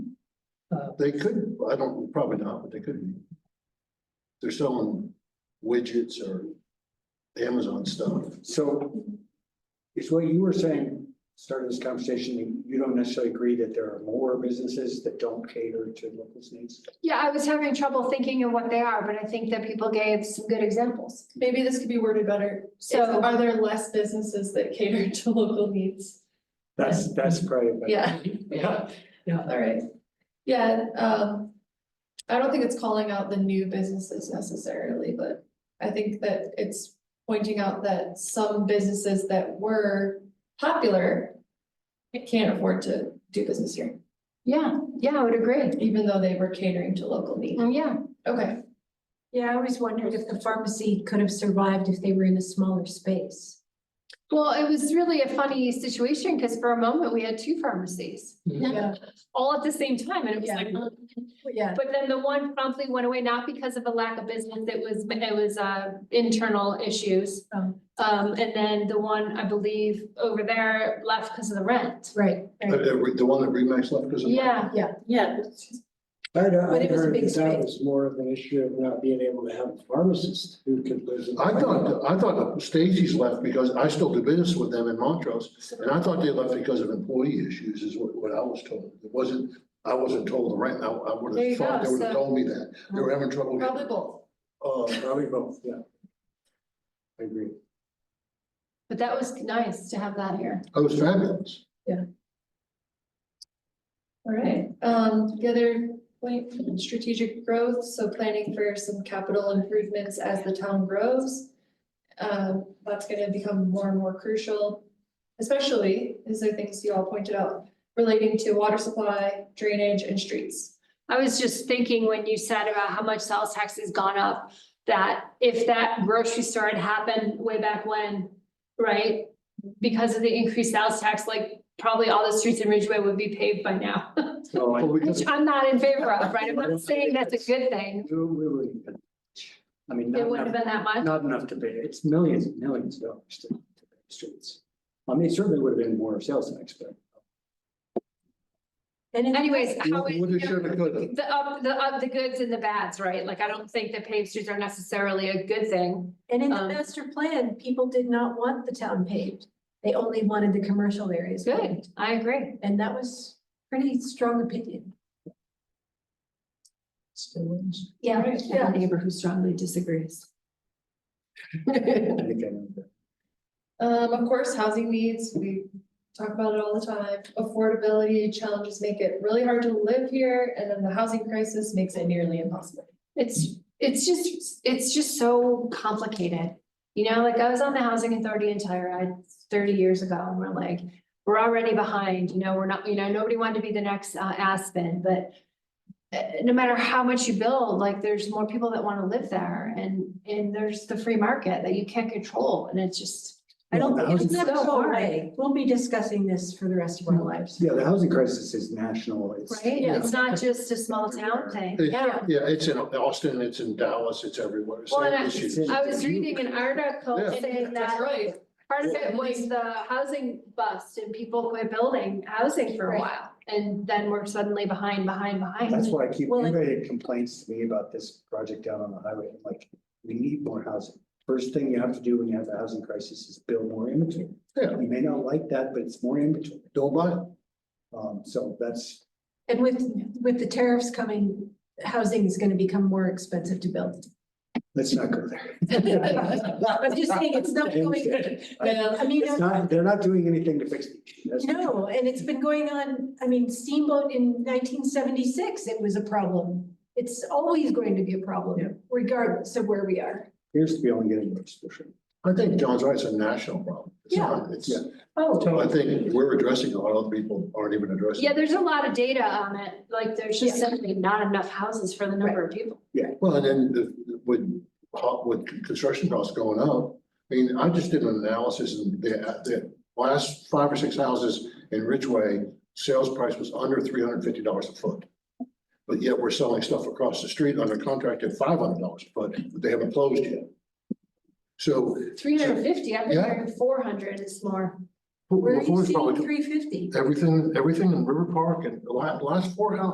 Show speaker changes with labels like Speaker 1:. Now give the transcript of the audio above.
Speaker 1: They could, I don't, probably not, but they could be. They're selling widgets or Amazon stuff.
Speaker 2: So is what you were saying, starting this conversation, you don't necessarily agree that there are more businesses that don't cater to locals' needs?
Speaker 3: Yeah, I was having trouble thinking of what they are, but I think that people gave some good examples.
Speaker 4: Maybe this could be worded better. So
Speaker 3: So-
Speaker 4: are there less businesses that cater to local needs?
Speaker 2: That's, that's probably. a better-
Speaker 4: Yeah,
Speaker 5: Yeah, yeah.
Speaker 4: all right. Yeah, um, I don't think it's calling out the new businesses necessarily, but I think that it's pointing out that some businesses that were popular can't afford to do business here,
Speaker 3: Yeah, yeah, I would agree.
Speaker 4: even though they were catering to local needs.
Speaker 3: Oh, yeah.
Speaker 4: Okay,
Speaker 6: Yeah, I always wondered if the pharmacy could have survived if they were in a smaller space.
Speaker 3: Well, it was really a funny situation because for a moment we had two pharmacies
Speaker 4: yeah,
Speaker 3: all at the same time and it was
Speaker 4: Yeah.
Speaker 3: like. "Ugh."
Speaker 4: yeah,
Speaker 3: But then the one promptly went away, not because of a lack of business, it was, it was uh internal issues.
Speaker 4: Oh.
Speaker 3: Um, and then the one, I believe, over there left because of the rent.
Speaker 6: Right.
Speaker 1: Uh, uh, The one that Remax left because of.
Speaker 3: Yeah,
Speaker 5: Yeah,
Speaker 2: I don't, I
Speaker 6: But it was a
Speaker 2: heard
Speaker 6: big
Speaker 2: that that
Speaker 6: space.
Speaker 2: was more of an issue of not being able to have a pharmacist who could live. in-
Speaker 1: I thought, I thought that Stacy's left because I still do business with them in Montrose, and I thought they left because of employee issues is what, what I was told. It wasn't, I wasn't told the rent, I, I would
Speaker 3: There you
Speaker 1: have thought
Speaker 3: go,
Speaker 1: they would have
Speaker 3: so-
Speaker 1: told me that. They were having trouble. getting-
Speaker 4: probably both.
Speaker 1: Uh,
Speaker 2: Probably both, yeah. I agree.
Speaker 3: but that was nice to have that here.
Speaker 1: it was fabulous.
Speaker 4: All right, um, the other point, strategic growth, so planning for some capital improvements as the town grows. Um, that's gonna become more and more crucial, especially, these are things you all pointed out, relating to water supply, drainage, and streets.
Speaker 3: I was just thinking when you said about how much sales tax has gone up, that if that grocery store had happened way back when, right? Because of the increased sales tax, like probably all the streets in Ridgeway would be paved by now,
Speaker 2: No, I
Speaker 1: But we could-
Speaker 3: which I'm not in favor of, right? I'm not saying that's a good thing.
Speaker 2: do, we would. I mean,
Speaker 3: It
Speaker 2: not
Speaker 3: wouldn't
Speaker 2: enough,
Speaker 3: have been that much.
Speaker 2: not enough to pay. It's millions and millions of dollars to to pay the streets. I mean, it certainly would have been more sales tax, but
Speaker 6: And in-
Speaker 3: Anyways, how is,
Speaker 1: Woulda, shoulda, coulda.
Speaker 3: the up, the up, the goods and the bads, right? Like, I don't think that paved streets are necessarily a good thing.
Speaker 6: and in the
Speaker 3: um,
Speaker 6: master plan, people did not want the town paved. They only wanted the commercial areas.
Speaker 3: Good,
Speaker 6: paved,
Speaker 3: I agree.
Speaker 6: And that was pretty strong opinion.
Speaker 5: Still wins.
Speaker 6: Yeah.
Speaker 4: Yeah.
Speaker 6: neighbor who strongly disagrees.
Speaker 2: I think I know that.
Speaker 4: Um, of course, housing needs, we talk about it all the time, affordability challenges make it really hard to live here, and then the housing crisis makes it nearly impossible.
Speaker 3: It's, it's just, it's just so complicated. You know, like I was on the housing authority in Telluride thirty years ago and we're like, we're already behind, you know, we're not, you know, nobody wanted to be the next uh, Aspen, but uh, no matter how much you build, like there's more people that want to live there and, and there's the free market that you can't control and it's just, I don't,
Speaker 2: Yeah, the Mm-hmm.
Speaker 3: think it's
Speaker 6: Never
Speaker 3: so
Speaker 6: go
Speaker 3: hard.
Speaker 6: away. We'll be discussing this for the rest of our lives.
Speaker 2: Yeah, the housing crisis is national. It's.
Speaker 3: Right?
Speaker 2: yeah.
Speaker 3: It's not just a small town thing.
Speaker 1: It-
Speaker 3: Yeah.
Speaker 1: Yeah, it's in Austin, it's in Dallas, it's everywhere. It's
Speaker 3: Well,
Speaker 1: an
Speaker 3: and I-
Speaker 1: issue.
Speaker 3: I was reading an article
Speaker 1: Yeah.
Speaker 3: saying that
Speaker 4: That's right.
Speaker 3: part of it was the housing bust and people quit building housing for a
Speaker 4: Right.
Speaker 3: while. And then we're suddenly behind, behind,
Speaker 2: That's
Speaker 3: behind.
Speaker 2: why I keep,
Speaker 6: Well, it-
Speaker 2: anybody that complains to me about this project down on the highway, I'm like, we need more housing. First thing you have to do when you have a housing crisis is build more inventory.
Speaker 1: Yeah.
Speaker 2: You may not like that, but it's more inventory.
Speaker 1: Don't buy it.
Speaker 2: Um, so that's,
Speaker 6: And with, with the tariffs coming, housing is gonna become more expensive to build.
Speaker 2: let's not go there.
Speaker 6: I'm just saying, it's not going,
Speaker 4: Yeah.
Speaker 6: I mean.
Speaker 2: It's not, they're not doing anything to fix it.
Speaker 6: No, and it's been going on, I mean, steamboat in nineteen seventy-six, it was a problem. It's always going to be a problem, regardless of where we are.
Speaker 2: Appears to be only getting worse for sure.
Speaker 1: I think John's right, it's a national problem. It's
Speaker 6: Yeah.
Speaker 1: not- It's,
Speaker 2: Yeah.
Speaker 6: Oh.
Speaker 1: I think we're addressing a lot of people aren't even addressing.
Speaker 3: Yeah, there's a lot of data on it. Like there's just simply not enough houses for the number of people.
Speaker 1: Well, and then the, with, co- with construction costs going up, I mean, I just did an analysis and the, the last five or six houses in Ridgeway, sales price was under three hundred and fifty dollars a foot. But yet we're selling stuff across the street under contract at five hundred dollars a foot, but they haven't closed yet. So
Speaker 3: Three hundred and fifty, I've been
Speaker 1: Yeah.
Speaker 3: hearing four hundred is more.
Speaker 6: Where are you
Speaker 1: LaFour's probably,
Speaker 6: seeing three fifty?
Speaker 1: everything, everything in River Park and the la- last four houses